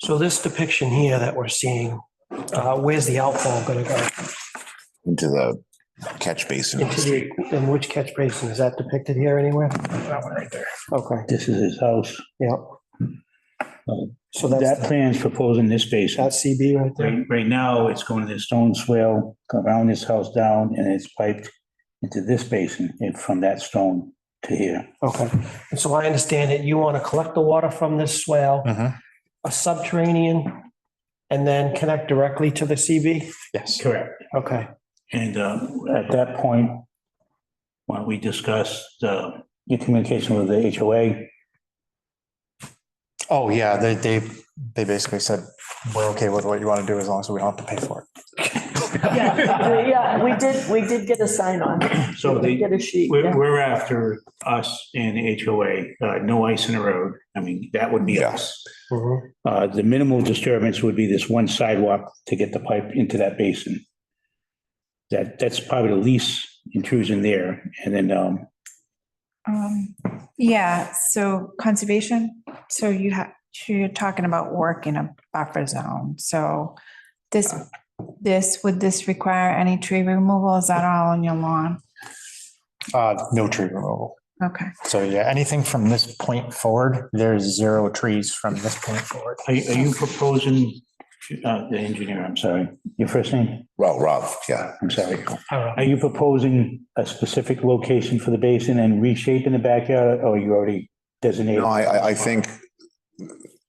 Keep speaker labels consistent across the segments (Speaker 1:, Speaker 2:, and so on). Speaker 1: So this depiction here that we're seeing, uh, where's the outfall going to go?
Speaker 2: into the catch basin.
Speaker 1: Into the, in which catch basin? Is that depicted here anywhere?
Speaker 3: That one right there.
Speaker 1: Okay,
Speaker 3: This is his house.
Speaker 1: yeah. So
Speaker 3: That
Speaker 1: that's,
Speaker 3: plan's proposing this basin.
Speaker 1: that's CB right there?
Speaker 3: Right, right now, it's going to the stone swale, come around this house down, and it's piped into this basin and from that stone to here.
Speaker 1: Okay. And so I understand that you want to collect the water from this swale,
Speaker 3: Uh-huh.
Speaker 2: Mhm.
Speaker 1: a subterranean, and then connect directly to the CB?
Speaker 2: Yes.
Speaker 3: Correct.
Speaker 1: Okay,
Speaker 3: And uh, at that point, when we discussed uh, your communication with the HOA,
Speaker 4: Oh, yeah, they, they, they basically said, we're okay with what you want to do as long as we don't have to pay for it.
Speaker 5: Yeah, yeah, we did, we did get a sign on.
Speaker 3: so
Speaker 5: We
Speaker 3: the,
Speaker 5: Get a sheet.
Speaker 3: we're,
Speaker 5: yeah.
Speaker 3: we're after us and HOA, uh, no ice in the road. I mean, that would be us.
Speaker 1: Mhm.
Speaker 3: Uh, The minimal disturbance would be this one sidewalk to get the pipe into that basin. That, that's probably the least intrusion there. And then um,
Speaker 6: Um, yeah, so conservation, so you have, you're talking about work in a buffer zone, so this, this, would this require any tree removal? Is that all on your lawn?
Speaker 4: Uh, no tree removal.
Speaker 6: Okay,
Speaker 4: So yeah, anything from this point forward, there's zero trees from this point forward.
Speaker 3: are are you proposing, uh, the engineer, I'm sorry, your first name?
Speaker 2: Well, Rob, yeah.
Speaker 3: I'm sorry. Are you proposing a specific location for the basin and reshaping the backyard, or you already designated?
Speaker 2: No, I, I, I think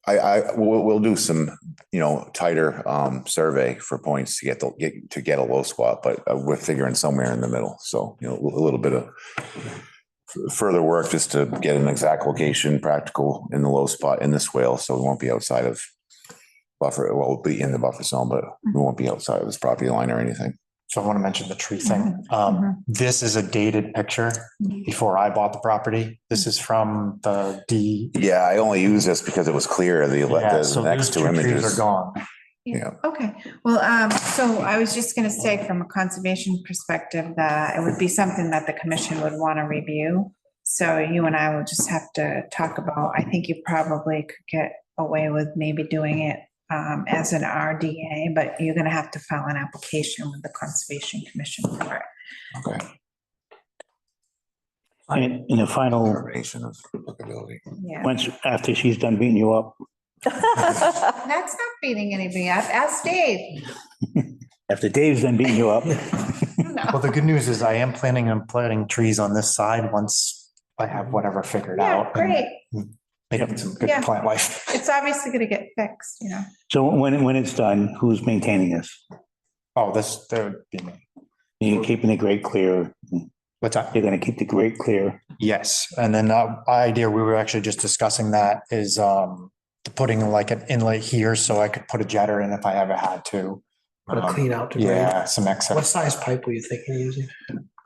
Speaker 2: I, I, we'll, we'll do some, you know, tighter, um, survey for points to get the, get, to get a low squat, but uh, we're figuring somewhere in the middle. So, you know, a little bit of f- further work just to get an exact location, practical in the low spot in the swale. So we won't be outside of buffer, well, we'll be in the buffer zone, but we won't be outside of this property line or anything.
Speaker 4: So I want to mention the tree thing.
Speaker 6: Mm-hmm.
Speaker 4: Um, this is a dated picture before I bought the property. This is from the D.
Speaker 2: Yeah, I only use this because it was clear, the,
Speaker 4: Yeah,
Speaker 2: the
Speaker 4: so
Speaker 2: next
Speaker 4: those
Speaker 2: two
Speaker 4: trees
Speaker 2: images.
Speaker 4: Are gone.
Speaker 2: Yeah.
Speaker 6: okay, well, um, so I was just gonna say from a conservation perspective, that it would be something that the commission would wanna review. So you and I will just have to talk about, I think you probably could get away with maybe doing it um, as an RDA, but you're gonna have to file an application with the Conservation Commission for it.
Speaker 2: Okay.
Speaker 3: In, in the final,
Speaker 2: Confirmation of applicability.
Speaker 6: Yeah.
Speaker 3: once, after she's done beating you up,
Speaker 6: That's not beating anybody up. Ask Dave.
Speaker 3: after Dave's done beating you up,
Speaker 4: Well, the good news is I am planning on planting trees on this side once I have whatever figured
Speaker 6: Yeah,
Speaker 4: out. and
Speaker 6: great.
Speaker 4: Making some good
Speaker 6: Yeah.
Speaker 4: plant life.
Speaker 6: It's obviously gonna get fixed, you know?
Speaker 3: so when, when it's done, who's maintaining this?
Speaker 4: Oh, this, that would be me.
Speaker 3: You're keeping the grate clear,
Speaker 4: What's that?
Speaker 3: you're gonna keep the grate clear.
Speaker 4: Yes, and then uh, my idea, we were actually just discussing that is um putting like an inlet here so I could put a jetter in if I ever had to.
Speaker 1: put a
Speaker 4: Um,
Speaker 1: clean out to grade.
Speaker 4: Yeah, some
Speaker 1: What
Speaker 4: excess.
Speaker 1: size pipe were you thinking of using?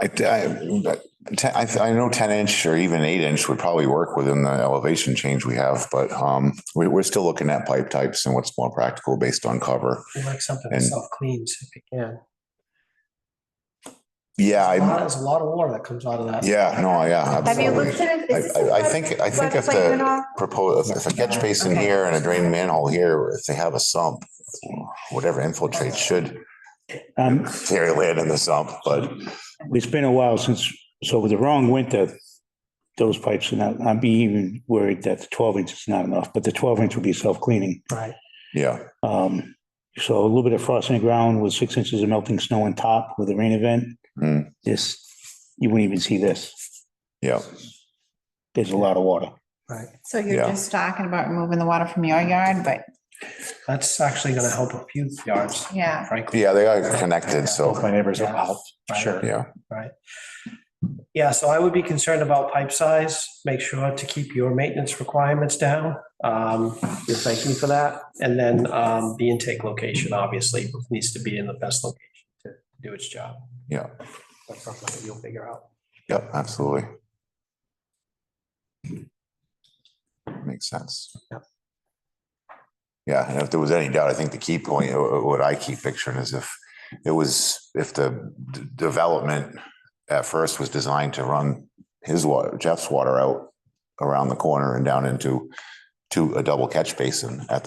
Speaker 2: I, I, but te- I, I know ten inch or even eight inch would probably work within the elevation change we have, but, um, we, we're still looking at pipe types and what's more practical based on cover.
Speaker 1: You like something that
Speaker 2: And-
Speaker 1: self-cleans if you can.
Speaker 2: Yeah,
Speaker 1: Wow,
Speaker 2: I,
Speaker 1: There's a lot of water that comes out of that.
Speaker 2: yeah, no, yeah,
Speaker 6: Have you
Speaker 2: absolutely.
Speaker 6: looked at it? Is this
Speaker 2: I- I- I
Speaker 6: a
Speaker 2: think- I think if
Speaker 6: floodplain
Speaker 2: the-
Speaker 6: and all?
Speaker 2: Propose, if a catch basin
Speaker 6: Okay.
Speaker 2: here and a drain manhole here, if they have a sump, whatever infiltrates should
Speaker 3: Um,
Speaker 2: carry land in the sump, but
Speaker 3: it's been a while since, so with the wrong winter, those pipes are not, I'd be even worried that the twelve inch is not enough, but the twelve inch would be self-cleaning.
Speaker 1: Right.
Speaker 2: yeah.
Speaker 3: Um, so a little bit of frost on the ground with six inches of melting snow on top with a rain event.
Speaker 2: Hmm.
Speaker 3: This, you wouldn't even see this.
Speaker 2: Yeah.
Speaker 3: There's a lot of water.
Speaker 1: Right.
Speaker 6: So you're
Speaker 2: Yeah.
Speaker 6: just talking about removing the water from your yard, but
Speaker 1: That's actually going to help a few yards,
Speaker 6: yeah,
Speaker 1: frankly.
Speaker 2: Yeah, they are connected,
Speaker 4: Both
Speaker 2: so,
Speaker 4: my neighbors will help,
Speaker 1: Right.
Speaker 4: sure.
Speaker 2: yeah.
Speaker 1: Yeah, so I would be concerned about pipe size. Make sure to keep your maintenance requirements down. Um, You'll thank me for that. And then um, the intake location, obviously, needs to be in the best location to do its job.
Speaker 2: Yeah.
Speaker 1: That's something that you'll figure out.
Speaker 2: Yep, absolutely. Makes sense.
Speaker 1: Yep.
Speaker 2: Yeah, and if there was any doubt, I think the key point, uh, uh, what I keep picturing is if it was, if the d- development at first was designed to run his water, Jeff's water out around the corner and down into to a double catch basin at